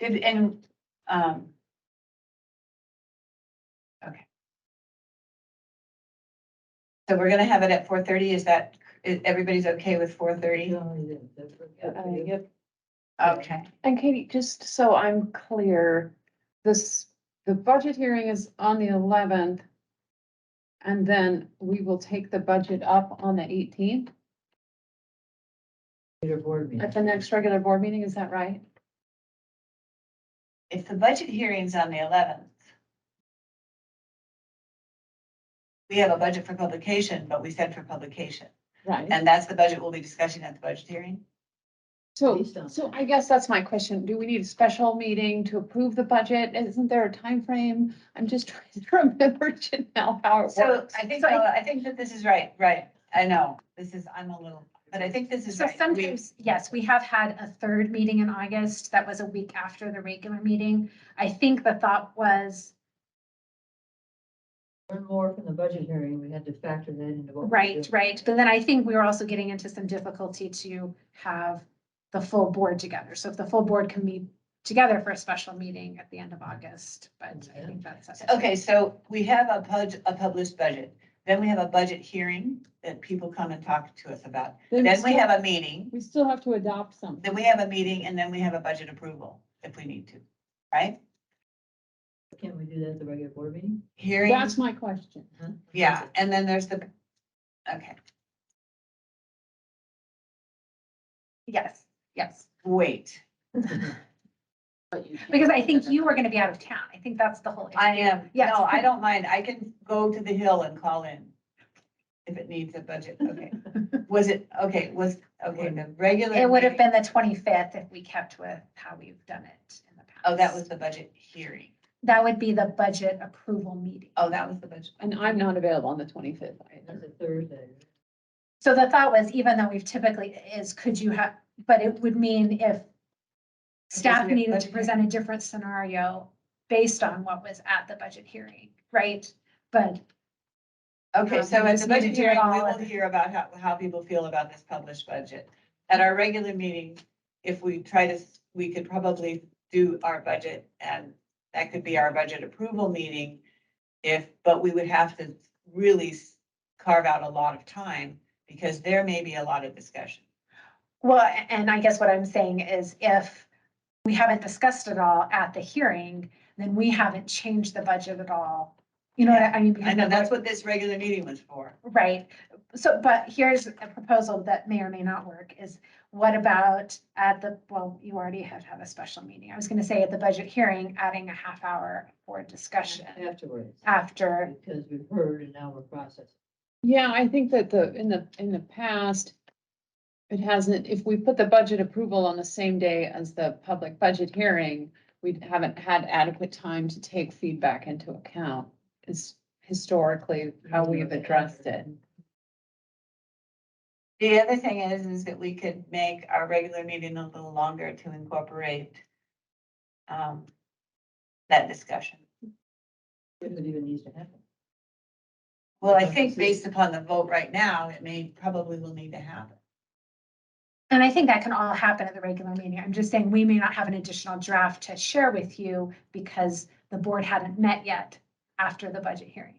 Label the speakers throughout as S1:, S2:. S1: And, and, um. Okay. So we're gonna have it at four thirty, is that, is, everybody's okay with four thirty?
S2: Uh,
S3: Uh, Yep.
S1: Okay,
S3: And Katie, just so I'm clear, this, the budget hearing is on the eleventh. And then we will take the budget up on the eighteenth
S4: board meeting.
S3: at the next regular board meeting, is that right?
S1: if the budget hearing's on the eleventh. We have a budget for publication, but we said for publication,
S3: Right.
S1: and that's the budget we'll be discussing at the budget hearing.
S3: So,
S4: Please don't.
S3: so I guess that's my question. Do we need a special meeting to approve the budget? Isn't there a time frame? I'm just trying to remember Janelle how it works.
S1: So I think, uh, I think that this is right, right, I know, this is, I'm a little, but I think this is
S2: So
S1: right. We-
S2: sometimes, yes, we have had a third meeting in August that was a week after the regular meeting. I think the thought was,
S4: One more from the budget hearing, we had to factor that into what. we
S2: right,
S4: do.
S2: right, but then I think we were also getting into some difficulty to have the full board together. So if the full board can meet together for a special meeting at the end of August, but I think that's.
S1: Okay, so we have a pub, a published budget, then we have a budget hearing that people come and talk to us about. Then we
S3: still-
S1: have a meeting,
S3: We still have to adopt something.
S1: then we have a meeting, and then we have a budget approval if we need to, right?
S4: Can we do that at the regular board meeting?
S1: Hearing,
S3: That's my question.
S1: yeah, and then there's the, okay,
S2: Yes, yes,
S1: wait,
S2: because I think you were gonna be out of town. I think that's the whole. issue.
S1: I am,
S2: Yes.
S1: no, I don't mind, I can go to the hill and call in if it needs a budget, okay. Was it, okay, was, okay, the regular.
S2: It would have
S1: meeting-
S2: been the twenty-fifth if we kept with how we've done it in the past.
S1: Oh, that was the budget hearing,
S2: That would be the budget approval meeting.
S1: oh, that was the budget.
S3: And I'm not available on the twenty-fifth either.
S4: That's a Thursday.
S2: So the thought was, even though we've typically is, could you have, but it would mean if staff
S1: Isn't it
S2: needed to
S1: budget
S2: present a different scenario based on what was at the budget hearing, right? But
S1: Okay,
S2: Um,
S1: so
S2: we
S1: at
S2: just
S1: the
S2: need to
S1: budget
S2: do it
S1: hearing, we
S2: all
S1: will
S2: at the-
S1: hear about how, how people feel about this published budget. At our regular meeting, if we try to, s- we could probably do our budget and that could be our budget approval meeting. If, but we would have to really s- carve out a lot of time because there may be a lot of discussion.
S2: Well, a- and I guess what I'm saying is if we haven't discussed it all at the hearing, then we haven't changed the budget at all. You know, what I I mean. because
S1: I know
S2: the
S1: that's
S2: vote-
S1: what this regular meeting was for.
S2: Right. So, but here's a proposal that may or may not work is what about at the, well, you already have to have a special meeting. I was gonna say at the budget hearing, adding a half hour for discussion
S4: Afterwards,
S2: after.
S4: because we've heard and now we're processing.
S3: Yeah, I think that the, in the, in the past, it hasn't, if we put the budget approval on the same day as the public budget hearing, we haven't had adequate time to take feedback into account. Is historically how we've addressed it.
S1: The other thing is, is that we could make our regular meeting a little longer to incorporate um, that discussion.
S4: If it even needs to happen.
S1: Well, I
S4: Okay.
S1: think based upon the vote right now, it may, probably will need to happen.
S2: And I think that can all happen at the regular meeting. I'm just saying, we may not have an additional draft to share with you because the board hadn't met yet after the budget hearing.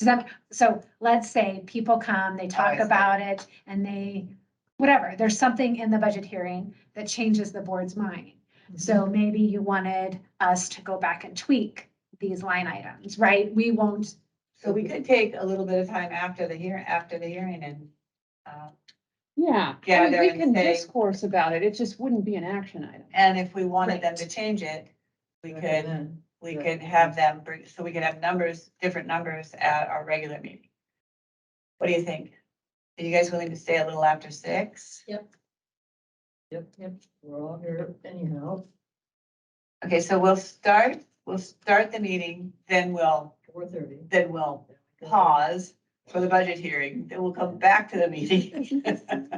S2: Does that, so let's say people come, they
S1: I
S2: talk
S1: see.
S2: about it and they, whatever, there's something in the budget hearing that changes the board's mind. So maybe you wanted us to go back and tweak these line items, right? We won't,
S1: So we could take a little bit of time after the hear, after the hearing and, uh,
S3: Yeah. I mean,
S1: Gather
S3: We
S1: and
S3: can
S1: say-
S3: discourse about it. It just wouldn't be an action item.
S1: and if we wanted them
S2: Right.
S1: to change it, we could,
S4: Recommend.
S1: we could have them, bring so we could have numbers, different numbers at our regular meeting. What do you think? Are you guys willing to stay a little after six?
S4: Yep, yep, we're all here anyhow.
S1: Okay, so we'll start, we'll start the meeting, then we'll,
S4: Four thirty.
S1: then we'll pause for the budget hearing, then we'll come back to the meeting.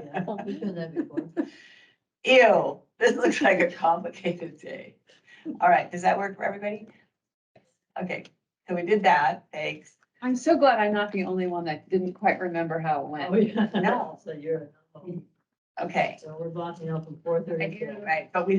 S4: Yeah, we've done that before.
S1: Ew, this looks like a complicated day. All right, does that work for everybody? Okay, so we did that, thanks.
S3: I'm so glad I'm not the only one that didn't quite remember how it
S4: Oh,
S3: went.
S4: yeah.
S1: No.
S4: So you're,
S1: Okay.
S4: so we're blocking out from four
S1: I
S4: thirty.
S1: do, Right, but we